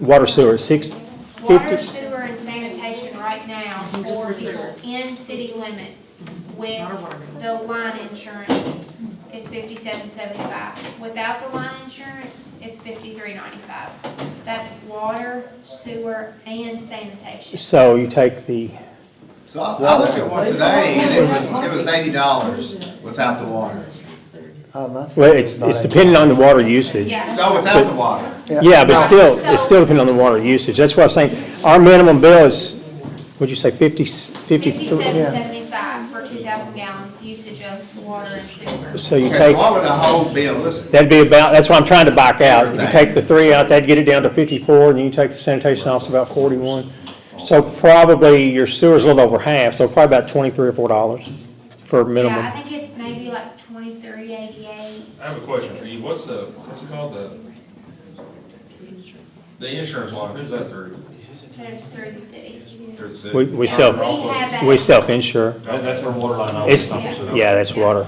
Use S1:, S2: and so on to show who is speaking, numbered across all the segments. S1: water sewer, six
S2: Water,
S1: fifty?
S2: sewer, and sanitation right now for people in city limits with the line insurance is fifty-seven seventy-five. Without the line insurance, it's fifty-three ninety-five. That's water, sewer, and sanitation.
S1: So you take the,
S3: So I, I looked at one today, and it was, it was eighty dollars without the water.
S1: well, it's, it's dependent on the water usage.
S2: Yeah.
S3: No, without the water.
S1: Yeah, but still, it's still dependent on the water usage. That's what I'm saying. Our minimum bill is, what'd you say, fifty, fifty?
S2: Fifty-seven seventy-five for two thousand gallons usage of water and sewer.
S1: So you
S3: Okay, so
S1: take,
S3: why would the whole bill, listen,
S1: that'd be about, that's what I'm trying to back out. If you take the three out, that'd get it down to fifty-four, and then you take the sanitation off, it's about forty-one. So probably your sewer's a little over half, so probably about twenty-three or four dollars for minimum.
S2: Yeah, I think it may be like twenty-three eighty-eight.
S4: I have a question for you. What's the, what's it called, the, the insurance line, who's that through?
S2: That is through the city.
S4: Through the city?
S1: We- we sell-
S2: We have a.
S1: We self-insure.
S4: That- That's for water line.
S1: It's, yeah, that's water.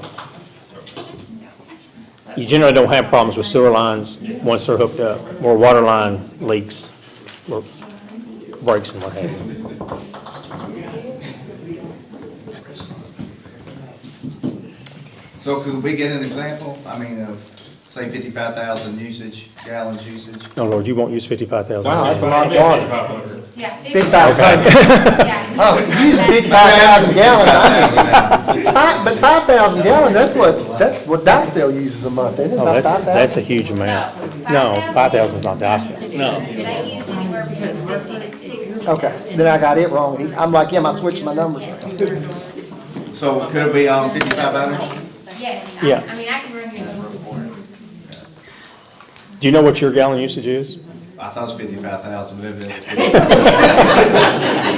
S1: You generally don't have problems with sewer lines once they're hooked up, or water line leaks, or breaks and what have you.
S3: so could we get an example? I mean, of, say fifty-five thousand usage, gallons usage?
S1: Oh, Lord, you won't use fifty-five thousand.
S5: Wow, that's a lot of water.
S2: Yeah.
S5: Fifty-five
S2: Yeah.
S5: Oh, you use fifty-five thousand gallons, I mean, five, but five thousand gallons, that's what, that's what Dicel uses a month, isn't it?
S1: Oh,
S5: About
S1: that's,
S5: 5,000?
S1: that's a huge amount. No, five thousand's not Dyson. No.
S2: They use anywhere between fifty to sixty.
S5: Okay, then I got it wrong. I'm like, yeah, I switched my numbers.
S3: So could it be, um, fifty-five hundred?
S2: Yes, I,
S1: Yeah.
S2: I mean, I can run you the report.
S1: Do you know what your gallon usage is?
S3: I thought it was fifty-five thousand, but it was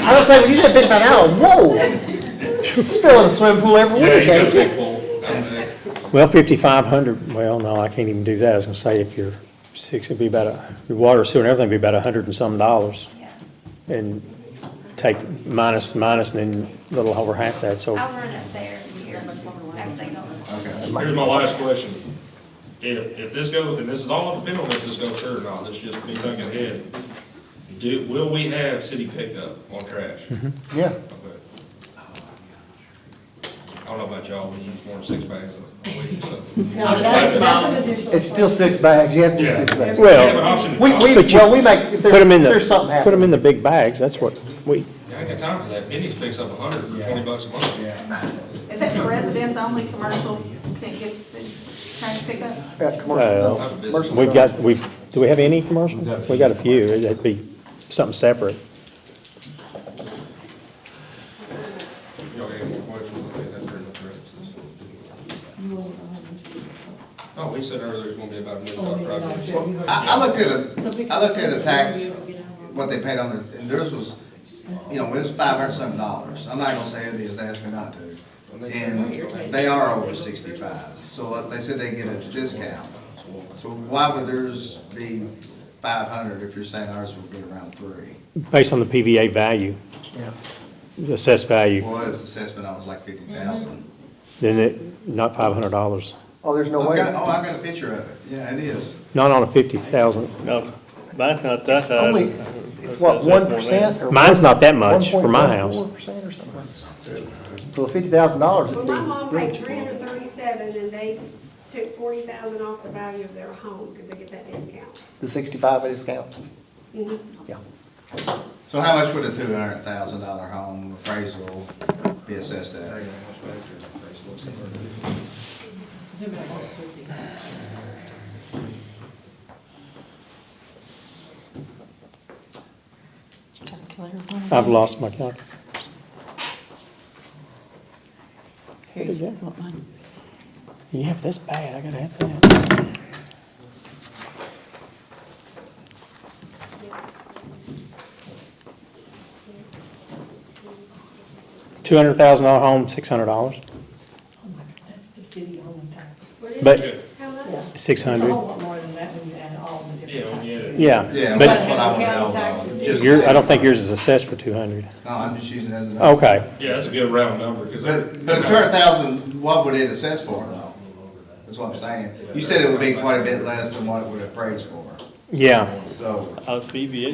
S5: I was saying, when you said fifty-five gallons, whoa! It's filling a swimming pool every week, ain't you?
S4: uh,
S1: Well, fifty-five hundred, well, no, I can't even do that. I was gonna say if you're six, it'd be about, a- your water, sewer and everything would be about a hundred and some dollars.
S2: Yeah.
S1: and take minus, minus, and then a little over half that, so.
S2: I'll run up there here, after they go.
S3: Okay.
S4: Here's my last question. If, if this goes, and this is all dependent on if this goes through or not, this is just me thinking ahead. Do, will we have city pickup on trash?
S5: Yeah.
S4: Okay. Uh, I don't know about y'all, we use more than six bags a week, so. I'm just
S6: That's-
S4: laughing.
S6: that's an additional-
S5: It's still six bags, you have to do
S4: Yeah.
S5: six bags.
S4: We have an
S1: Well,
S4: option to
S5: We, we,
S1: But you-
S5: well, we make, if
S1: put
S5: there's,
S1: them in
S5: there's something
S1: the, put them
S5: happening.
S1: in the big bags, that's what we,
S4: Yeah, I ain't got time for that. Penny's picks up a hundred for twenty bucks a month.
S6: Is that for residents only, commercial, can't get city trash pickup?
S5: Uh, commercial,
S1: Uh,
S5: no, commercial
S1: we've
S5: stuff.
S1: got, we've, do we have any commercial? We got a few, that'd be something separate.
S4: Y'all got any more questions? I think that's pretty much it. Oh, we said earlier there's gonna be about a million dollar
S6: Oh,
S4: project.
S3: I, I looked at a, I looked at a tax, what they paid on the, and theirs was, you know, it was five hundred something dollars. I'm not gonna say it is, they asked me not to. And they are over sixty-five, so what- they said they get a discount. So why would theirs be five hundred if you're saying ours would be around three?
S1: Based on the PVA value,
S5: Yeah.
S1: the assessed value,
S3: Well, his assessment, I was like fifty thousand.
S1: then it, not five hundred dollars,
S5: Oh, there's
S3: Oh,
S5: no
S3: I
S5: way.
S3: got oh, I got a picture of it, yeah, it is.
S1: not on a fifty thousand.
S7: No, mine's not that high.
S5: Only, it's what, one percent or?
S1: Mine's not that much for my house.
S5: 1.14% or something. So fifty thousand dollars
S8: Well,
S5: would
S8: my mom paid
S5: be.
S8: three hundred thirty-seven, and they took forty thousand off the value of their home, because they get that discount.
S5: The sixty-five at discount,
S8: Mhm.
S5: yeah.
S3: So how much would a two hundred thousand dollar home appraisal be assessed at?
S1: I've lost my calculator.
S9: Here, you want mine?
S1: Yeah, if that's bad, I gotta have that. Two hundred thousand dollar home, six hundred dollars,
S9: Oh my God, that's the city only tax.
S1: but
S8: How much?
S1: six
S9: It's a
S1: hundred,
S9: whole lot more than that when you add all the
S4: Yeah,
S9: different
S4: when you add it.
S9: taxes.
S1: yeah.
S3: Yeah,
S1: But-
S3: that's what I would know.
S9: County
S3: though.
S9: taxes.
S3: Just-
S1: Your, I don't think yours is assessed for two hundred.
S3: No, I'm just using it as an.
S1: Okay,
S4: Yeah, that's a good round number, because.
S3: But, but a two hundred thousand, what would it assess for though? That's what I'm saying. You said it would be quite a bit less than what it would appraise for.
S10: yeah.
S11: so.
S1: I was BBA